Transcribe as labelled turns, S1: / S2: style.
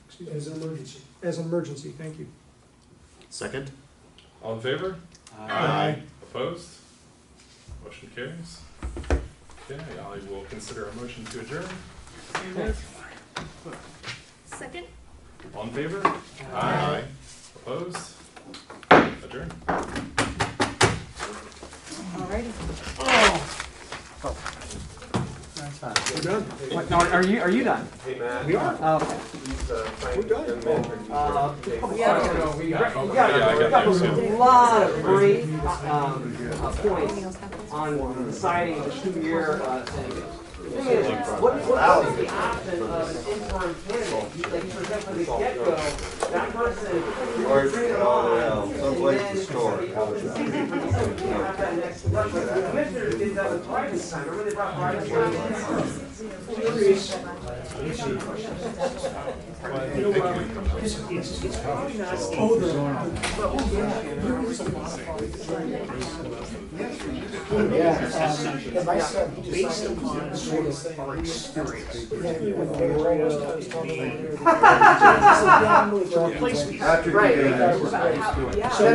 S1: as an emergency, as an emergency, thank you.
S2: Second?
S3: All in favor?
S2: Aye.
S3: Opposed? Motion carries. Okay, I will consider a motion to adjourn.
S4: Second?
S3: All in favor? Opposed? Adjourn.
S5: Alrighty.
S1: We're done.
S5: What, no, are you, are you done?
S6: Hey, Matt.
S1: We are.
S5: Oh, okay.
S6: He's, uh,
S1: We're done.
S6: trying to mentor you.
S5: Uh,
S6: Yeah.
S5: yeah, we got, we
S3: Yeah, I
S5: got, we
S3: got
S5: got
S3: the example.
S5: a lot of great, um, uh, points on deciding the two-year, uh, thing. Thing is, what, what is the option of an interim candidate that you present from the get-go? That person,
S6: Or,
S5: you bring it
S6: uh,
S5: on,
S6: someplace
S5: and
S6: to
S5: then
S6: store. it. How was that?
S5: The commissioners did that with Brian's time, remember they brought Brian's time?
S1: Oh,
S7: Yeah, um, and my son, he based upon sort of our experience. When they were almost done, he's telling me, "This is down with the replacement."
S6: After you
S5: Right.
S6: do that, we're-
S5: Yeah.